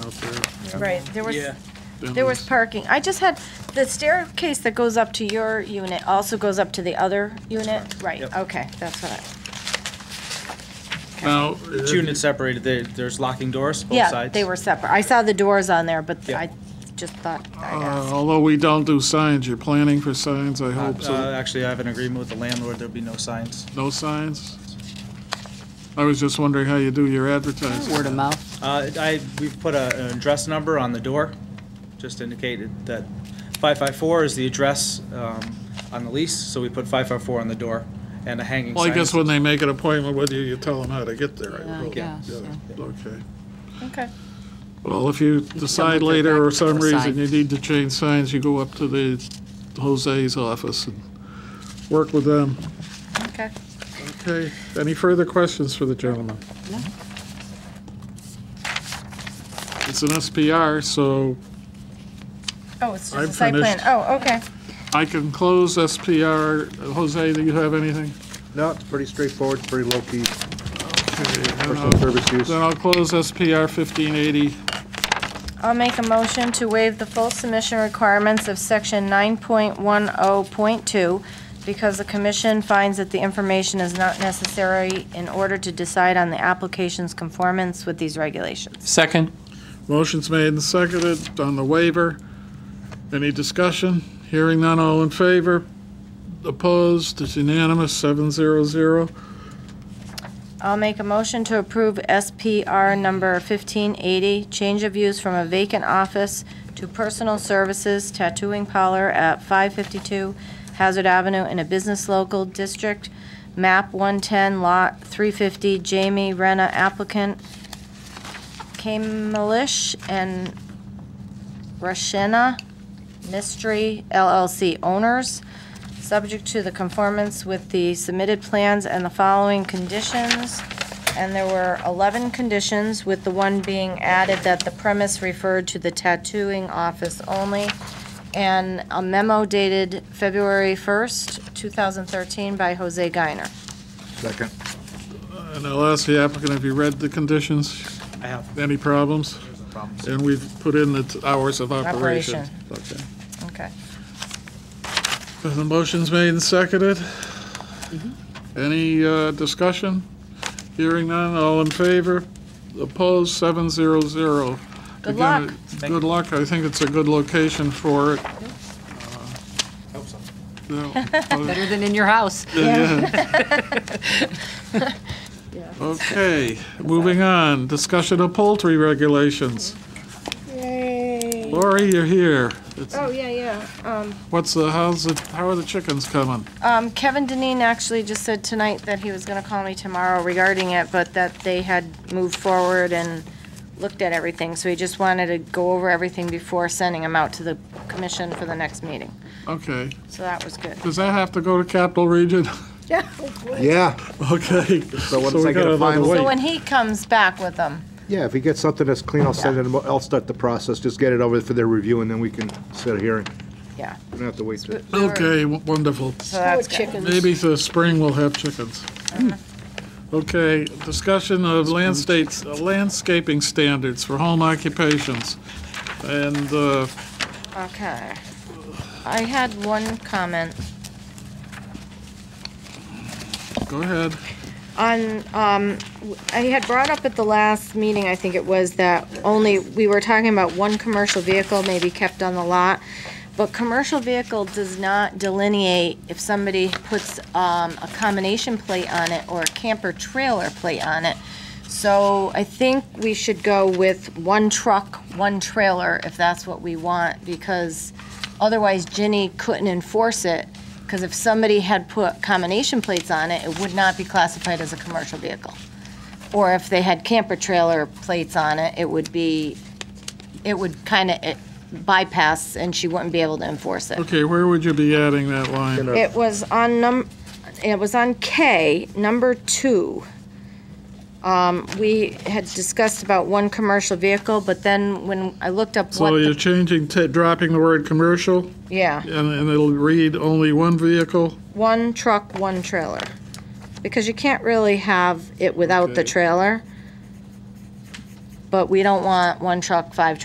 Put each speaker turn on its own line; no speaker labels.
Right, there was,
Yeah.
there was parking. I just had, the staircase that goes up to your unit also goes up to the other unit? Right,
Yep.
okay, that's what I,
Now,
Each unit separated, there, there's locking doors, both sides.
yeah, they were separate. I saw the doors on there, but
Yeah.
I just thought I'd
uh,
ask.
although we don't do signs, you're planning for signs, I hope,
Uh,
so,
Actually, I have an agreement with the landlord, there'll be no signs.
no signs? I was just wondering how you do your advertising.
Word of mouth.
Uh, I, we've put a, an address number on the door, just indicated that 554 is the address um, on the lease, so we put 554 on the door and a hanging
Well, I
sign.
guess when they make an appointment with you, you tell them how to get there, I
Yeah, I
would hope.
guess,
Okay.
Okay.
Well, if you decide later or some
Sign.
reason you need to change signs, you go up to the Jose's office and work with them.
Okay.
Okay, any further questions for the gentleman?
No.
It's an SPR, so
Oh, it's just
I'm
a site plan.
finished.
Oh, okay.
I can close SPR. Jose, do you have anything?
No, it's pretty straightforward, it's pretty low-key,
Okay, then
personal
I'll-
service use.
Then I'll close SPR 1580.
I'll make a motion to waive the full submission requirements of section 9.10.2 because the commission finds that the information is not necessary in order to decide on the application's conformance with these regulations.
Second?
Motion's made and seconded on the waiver. Any discussion? Hearing none, all in favor? Opposed? It's unanimous, 700.
I'll make a motion to approve SPR number 1580, change of use from a vacant office to personal services tattooing parlor at 552 Hazard Avenue in a business local district, map 110, lot 350, Jamie Rena applicant, Kamalish and Rashena Mystery LLC owners, subject to the conformance with the submitted plans and the following conditions. And there were 11 conditions, with the one being added that the premise referred to the tattooing office only. And a memo dated February 1st, 2013 by Jose Guiner.
Second.
And I'll ask the applicant, have you read the conditions?
I have
Any problems?
no problems.
And we've put in the t- hours of operation.
Operation.
Okay.
Okay.
The motion's made and seconded. Any uh, discussion? Hearing none, all in favor? Opposed, 700.
Good
Again,
luck.
it- Good luck. I think it's a good location for it. Uh,
Hope so.
Yeah.
Better than in your house.
Okay, moving on. Discussion of poultry regulations.
Yay.
Lori, you're here. It's-
Oh, yeah, yeah. Um,
What's the, how's the, how are the chickens coming?
Um, Kevin Deneen actually just said tonight that he was gonna call me tomorrow regarding it, but that they had moved forward and looked at everything, so he just wanted to go over everything before sending them out to the commission for the next meeting.
Okay,
So that was good.
does that have to go to Capital Region?
Yeah.
Yeah,
Okay.
So what does
we
I get
got
a
another
final?
So
week.
when he comes back with them,
yeah, if you get something that's clean, I'll send it, I'll start the process, just get it over for their review, and then we can set a hearing.
yeah,
We don't have to wait. till-
Okay, w- wonderful.
so that's good.
Maybe the spring we'll have chickens.
Uh-huh.
Okay, discussion of land states, landscaping standards for home occupations. And uh,
Okay. I had one comment.
go ahead.
On, um, I had brought up at the last meeting, I think it was, that only, we were talking about one commercial vehicle may be kept on the lot. But commercial vehicle does not delineate if somebody puts, um, a combination plate on it or a camper trailer plate on it. So I think we should go with one truck, one trailer, if that's what we want, because otherwise Ginny couldn't enforce it. Because if somebody had put combination plates on it, it would not be classified as a commercial vehicle. Or if they had camper trailer plates on it, it would be, it would kind of bypass and she wouldn't be able to enforce it.
Okay, where would you be adding that line?
It was on num, it was on K, number two. Um, we had discussed about one commercial vehicle, but then when I looked up what,
So you're
the-
changing, ta- dropping the word "commercial"
yeah,
and and it'll read only one vehicle?
one truck, one trailer. Because you can't really have it without the
Okay.
trailer. But we don't want one truck, five